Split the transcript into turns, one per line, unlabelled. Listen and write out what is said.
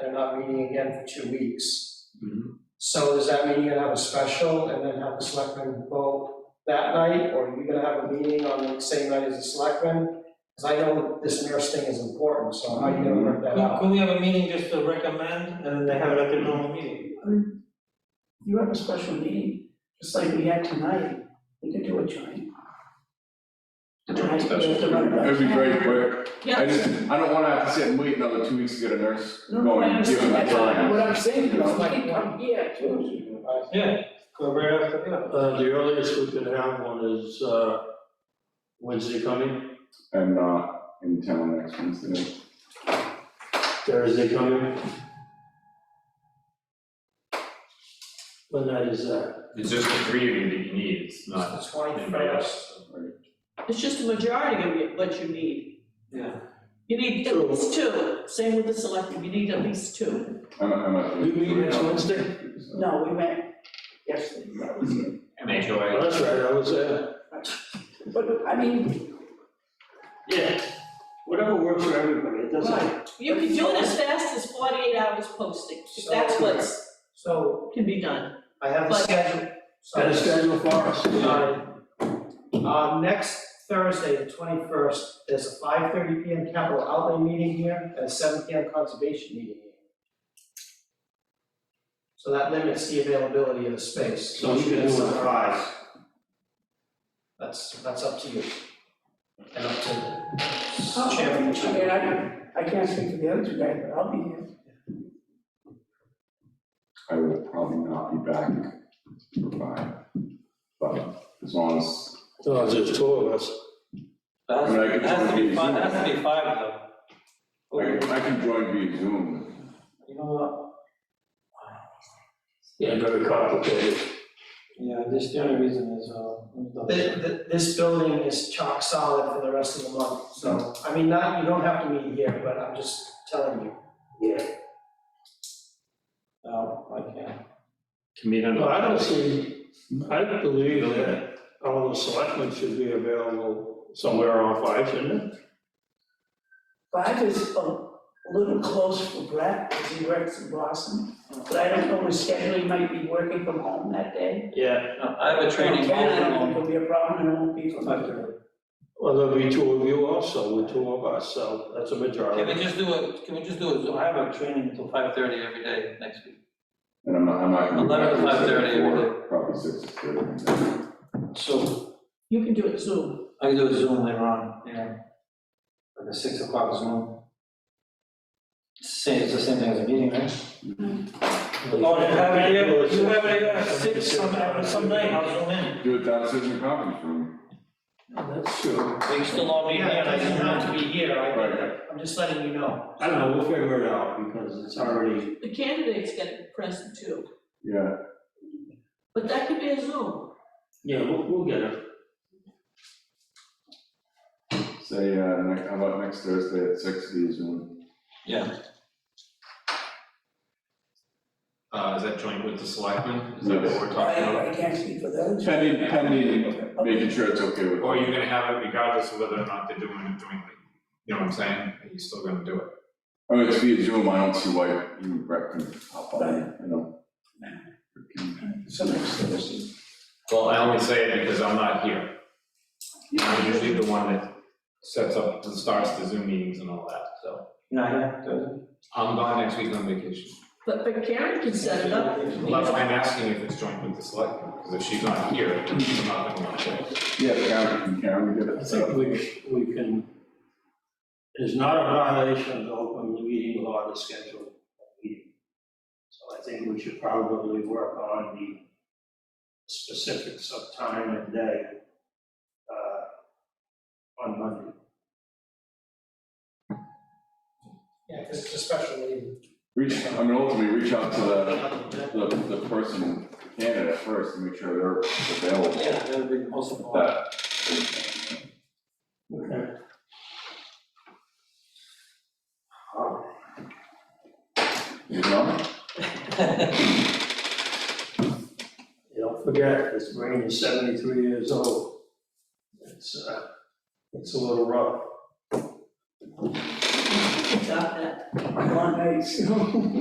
they're not meeting again for two weeks.
Mhm.
So does that mean you're gonna have a special and then have the selectmen vote that night? Or are you gonna have a meeting on the same night as the selectmen? Because I know this nurse thing is important, so how are you gonna work that
Could,
out?
could we have a meeting just to recommend, and then they have it at their normal meeting?
You have a special meeting, just like we had tonight, we could do a joint. Tonight, we have to run it up.
It'd be great, but I
Yeah,
just, I don't wanna have to sit and wait another two weeks to get a nurse
no, no, I
going, give
understand,
them the
that's what, what
time.
I'm saying, you know, we
Like
can come here too.
Yeah, go right after, yeah.
Uh, the earliest we could have one is, uh, Wednesday coming,
I'm not in town next Wednesday.
Thursday coming. When that is, that?
It's just the three of you that you need, it's not
It's the 21st.
anybody else.
It's just a majority of you- what you need.
Yeah.
You need at least two, same with the selectmen, you need at least two.
I'm, I'm not.
We meet next Wednesday?
So,
No, we met yesterday,
that was it.
Oh,
MHOA.
that's right, I was, uh,
but I mean,
yeah, whatever works for everybody, it doesn't.
You can do it as fast as forty-eight hours posting, if that's what's,
So
can be done.
I have the
But-
schedule. So-
Got a schedule for us?
Sorry. Um, Uh, next Thursday, the twenty-first, there's a five thirty P M capital outlay meeting here and a seven P M conservation meeting here. So that limits the availability of the space.
So we can do it five.
That's, that's up to you. And up to the
I
chairman.
mean, I, I can't speak for the other two guys, but I'll be here.
I will probably not be back for five, but as long as,
No, it's just Oh, two of us.
That has,
I mean, I could
that has to
join
be five,
the
that has to be five
I
though.
can, I can join via Zoom.
You know what,
Yeah, very complicated.
yeah, this, the only reason is, uh, I'm not-
This, this building is chock solid for the rest of the month, so, I mean, not, you don't have to meet here, but I'm just telling you.
no, Uh, I can't.
Can meet on the-
Well, I don't see, I believe that all the selectmen should be available somewhere on five, shouldn't it?
Five is a little close for Brett, because he works in Boston, but I don't know his schedule, he might be working from home that day.
Yeah.
No, I have a training
Okay, I don't think
on
it'll be a problem, and it won't be for
five
me.
thirty.
Well, there'll be two of you also, with two of us, so that's a majority.
Can we just do a, can we just do a, Zoom? I have a training until five thirty every day next week.
And I'm not, I'm not gonna be back.
11 to
till
5:30 every
four, Probably six thirty.
So
You can do it Zoom.
I can do a Zoom later on, yeah. Like a six o'clock Zoom. Same, it's the same thing as a meeting, right? Oh, you have it here, you have it here, six, some, some night, I'll zoom in.
Do it downstairs in the conference room.
That's true.
Are you still all meeting
Yeah,
here?
it doesn't have to be here,
Right.
I, I'm just letting you know.
I don't know, we'll figure it out, because it's already,
The candidates get it present too,
Yeah,
but that could be a Zoom.
yeah, we'll, we'll get it.
say, uh, next, how about next Thursday at six via Zoom?
Uh, is that joint with the selectmen? Is that what
Yes.
we're talking about?
I, I can't speak for the other two.
Pending, pending,
Okay.
making sure it's okay with.
Or you're gonna have it regardless of whether or not they're doing it jointly? You know what I'm saying? Are you still gonna do it?
I mean, Oh, it's via Zoom, I don't see why you and Brett can hop on, you know?
So next Thursday.
Well, I only say it because I'm not here. I'm usually the one that sets up and starts the Zoom meetings and all that, so.
Not here, Thursday.
I'm gone next week on vacation.
But, but Karen can set it up.
Well, That's why I'm asking if it's joint with the selectmen, because if she's not here, she's not gonna want to.
Yeah, Karen, Karen, we get
I
it.
think we, sh- we can, it's not a violation of the open meeting law to schedule a meeting. So I think we should probably work on the specifics of time and day, uh, on Monday.
Yeah, because it's a special meeting.
Reach, I mean, ultimately, reach
Uh,
out to the, the, the person, the candidate first, and make sure they're available.
Yeah, that would be possible.
That,
Okay.
you know?
You don't forget, this brain is seventy-three years old. It's, uh, it's a little rough.
Stop that.
Come on, guys.